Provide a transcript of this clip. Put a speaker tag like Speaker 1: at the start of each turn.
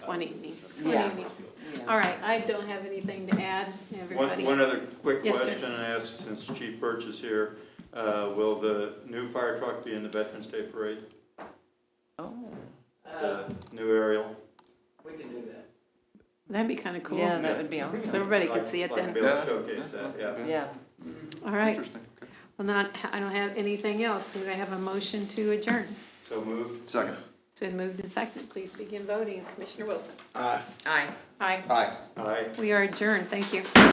Speaker 1: It's one evening, it's one
Speaker 2: Uh, Yeah.
Speaker 1: evening. All right, I don't have anything to add, everybody.
Speaker 3: One, one other quick
Speaker 1: Yes, sir.
Speaker 3: question I asked, since Chief Birch is here, uh, will the new fire truck be in the Veterans Day Parade?
Speaker 2: Oh,
Speaker 3: The new aerial?
Speaker 4: We can do that.
Speaker 1: That'd be kinda cool.
Speaker 2: yeah, that would be
Speaker 1: So
Speaker 2: awesome.
Speaker 1: everybody could see it
Speaker 3: Like-
Speaker 1: then.
Speaker 3: like be able to showcase that, yeah.
Speaker 2: Yeah,
Speaker 1: All right,
Speaker 5: Interesting, okay.
Speaker 1: well, not, I don't have anything else. Do I have a motion to adjourn?
Speaker 3: So moved.
Speaker 5: Second.
Speaker 1: It's been moved and seconded. Please begin voting. Commissioner Wilson.
Speaker 4: Aye.
Speaker 2: aye.
Speaker 1: Aye.
Speaker 5: Aye.
Speaker 3: Aye.
Speaker 1: We are adjourned. Thank you.